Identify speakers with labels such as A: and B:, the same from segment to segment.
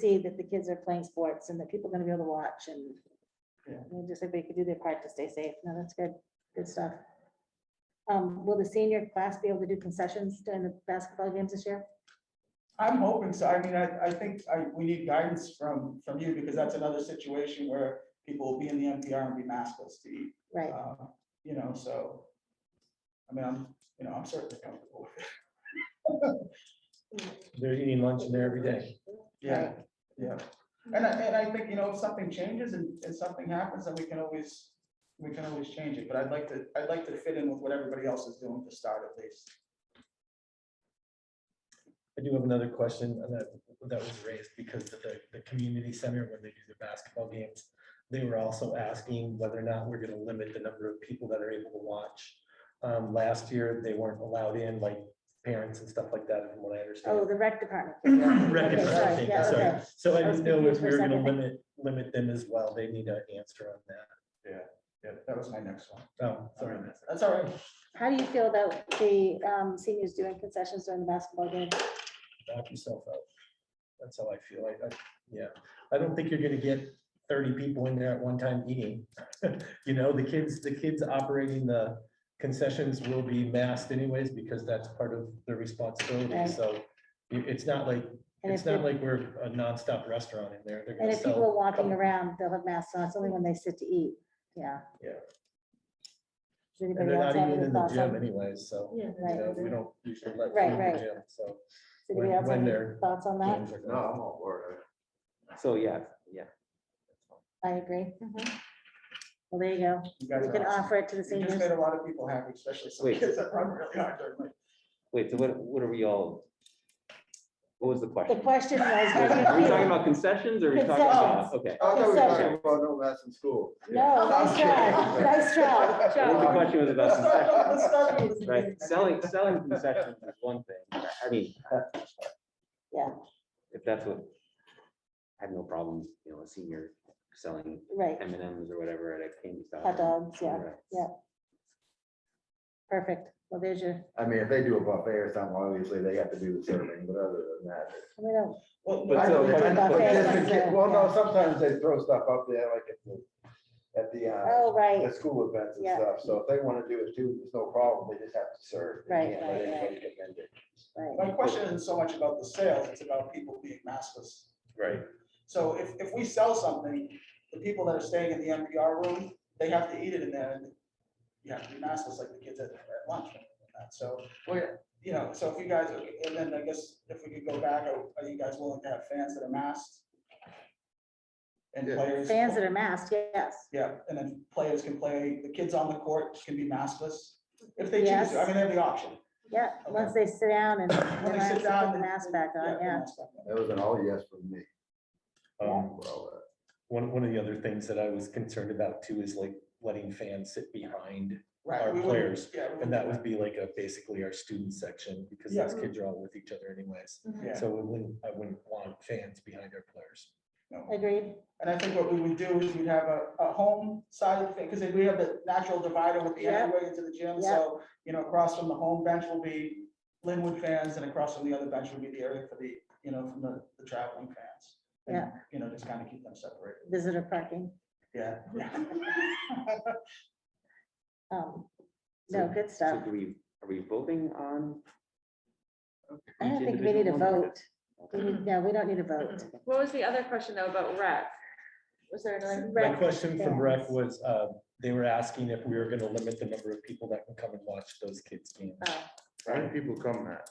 A: see that the kids are playing sports and that people are gonna be able to watch and
B: Yeah.
A: and just everybody could do their part to stay safe. No, that's good, good stuff. Um, will the senior class be able to do concessions during the basketball games this year?
B: I'm hoping so. I mean, I, I think I, we need guidance from, from you because that's another situation where people will be in the NPR and be maskless to eat.
A: Right,
B: uh, You know, so, I mean, I'm, you know, I'm certainly comfortable with it.
C: They're eating lunch in there every day.
B: Yeah,
A: Right.
B: yeah. And I, and I think, you know, if something changes and, and something happens, then we can always, we can always change it. But I'd like to, I'd like to fit in with what everybody else is doing to start at least.
C: I do have another question and that, that was raised because of the, the community center, when they do the basketball games, they were also asking whether or not we're gonna limit the number of people that are able to watch. Um, last year, they weren't allowed in, like parents and stuff like that, from what I
A: oh,
C: understand.
A: the rec department.
C: Rec
A: Okay,
C: is
A: sorry,
C: something,
A: yeah,
C: sorry.
A: okay.
C: So I
A: I was
C: didn't know if
A: confused
C: we
A: for
C: were
A: a
C: gonna
A: second.
C: limit, limit them as well. They need an answer on that.
B: Yeah, that was my next one.
C: Oh, sorry.
B: That's all right.
A: How do you feel about the um, seniors doing concessions during the basketball game?
C: knock yourself out. That's how I feel. I, I, yeah, I don't think you're gonna get thirty people in there at one time eating. You know, the kids, the kids operating the concessions will be masked anyways, because that's part of their
A: Right.
C: responsibility, so. i- It's not like,
A: And if,
C: it's
A: the-
C: not like we're a nonstop restaurant in there. They're
A: and
C: gonna
A: if people are
C: sell.
A: walking
C: couple-
A: around, they'll have masks on. It's only when they sit to eat. Yeah.
C: Yeah.
A: Does
C: And
A: anybody else
C: they're not
A: have
C: even
A: any
C: in the
A: thoughts
C: gym
A: on,
C: anyways, so,
D: Yeah.
C: you know,
A: right,
C: we don't usually let.
A: Right,
C: food in the
A: right.
C: gym, So.
A: Does
C: when-
A: anybody else have
C: when
A: any
C: they're-
A: thoughts on that?
C: games are
E: No,
C: going.
E: I'm all for it. So, yeah, yeah.
A: I agree. Well, there you go.
B: You guys
A: We
B: are
A: can
B: awesome.
A: offer it to the
B: You just made
A: seniors.
B: a lot of people happy, especially some
E: Wait.
B: kids that run really hard during like.
E: Wait, so what, what are we all? What was the
A: The
E: question?
A: question was, how
E: Are
A: do you
E: we talking
A: feel?
E: about concessions or are we talking about, okay.
F: I thought we were
A: Concession.
F: talking about no less in school.
A: No, nice try, nice try.
E: I think The
F: Sure.
E: question was about
B: Let's
E: concessions,
B: start with-
E: right? Selling, selling concessions is one thing. I- I mean.
A: Yeah.
E: If that's what, I have no problem, you know, a senior selling
A: Right,
E: M and M's or whatever at a candy store.
A: hot dogs, yeah,
E: Right.
A: yeah. perfect. Well, there's your,
F: I mean, if they do a buffet or something, obviously they have to do the serving, but other than that.
A: I mean, oh,
B: Well,
E: But
F: I
E: so-
F: know, but-
E: but-
F: but just in
A: Buffet. uh,
F: ca- Well, no, sometimes they throw stuff up there like at the, at the, uh,
A: oh, right,
F: the school events and
A: Yeah.
F: stuff. So if they want to do it too, there's no problem. They just have to serve. They
A: Right,
F: can't let
A: right, right.
F: anybody come in there.
A: right.
B: My question isn't so much about the sales, it's about people being maskless.
C: Right.
B: So if, if we sell something, the people that are staying in the NPR room, they have to eat it in there and you have to be maskless like the kids at at lunch. and that. So, we're- you know, so if you guys, are- and then I guess if we could go back, are are you guys willing to have fans that are masked? And
F: Yeah.
B: players.
A: Fans that are masked, yes.
B: Yeah, and then players can play, the kids on the court can be maskless, if they choose, to. I mean, they have the option.
A: Yeah, once they sit down and
B: When they
A: relax,
B: sit
A: put
B: down.
A: the mask back on,
B: put the
A: yeah.
B: mask back on.
F: That was an all yes from me.
C: Um,
F: for all that.
C: One, one of the other things that I was concerned about too is like letting fans sit behind,
B: Right,
C: Our
B: we wouldn't-
C: players,
B: yeah, we
C: and
B: wouldn't
C: that
B: do
C: would be like a, basically our student section, because those kids are all with each other anyways.
F: Mm-hmm.
B: Yeah.
C: So we wouldn't, I wouldn't want fans behind our players.
B: no.
A: Agreed,
B: And I think what we would do is we'd have a, a home side of the thing, because we have the natural divider with the
A: Yeah.
B: entryway into the gym,
A: Yeah.
B: so, you know, across from the home bench will be Linwood fans, and across from the other bench would be the area for the, you know, from the, the traveling fans. And,
A: Yeah.
B: You know, just kind of keep them separated,
A: visitor parking.
B: yeah.
A: Um, No,
E: So-
A: good
E: So
A: stuff.
E: do we, are we voting on?
A: I don't think we need a vote. We need- No, we don't need a vote.
D: What was the other question though about rec? Was there another?
C: My
A: Rec
C: question from rec
A: fans.
C: was, uh, they were asking if we were gonna limit the number of people that can come and watch those kids games.
A: Oh,
G: How many people come at?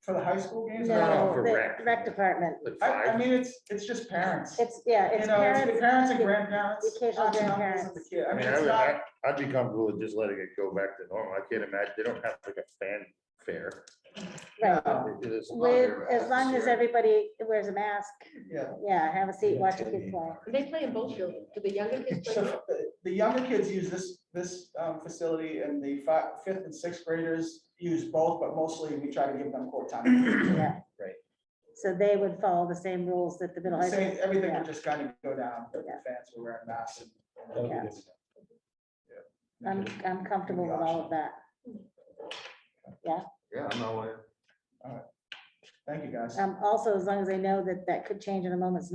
B: For the high school games? I don't know.
A: No,
G: for
A: the
G: rec.
A: rec department.
G: Like
B: I, I
G: five?
B: mean, it's, it's just parents.
A: It's, yeah,
B: You
A: it's
B: know, it's the
A: parents.
B: parents and grandparents.
A: occasional
B: aunts and uncles and the
A: grandparents.
B: kid. I
G: I
B: mean,
G: mean, I
B: it's
G: would,
B: not,
G: I- I'd be comfortable with just letting it go back to normal. I can't imagine, they don't have like a fanfare.
A: Right.
B: no,
G: It is-
A: With, as long as everybody wears a mask,
B: yeah.
A: yeah, have a seat, watch a kid
C: Tailgate.
A: play.
D: They play in both fields. Do the younger kids play?
B: So the- the younger kids use this, this um, facility and the fi- fifth and sixth graders use both, but mostly we try to give them court time.
A: Yeah.
C: Right.
A: So they would follow the same rules that the middle high
B: Same,
A: school.
B: everything
A: yeah.
B: would just kind of go down, but the
A: Yeah.
B: fans were wearing masks. and-
C: That would be good.
A: I'm, I'm comfortable with all of that.
F: Yeah, I'm all in.
B: Thank you, guys.
A: Um, also, as long as they know that that could change in a moment's notice,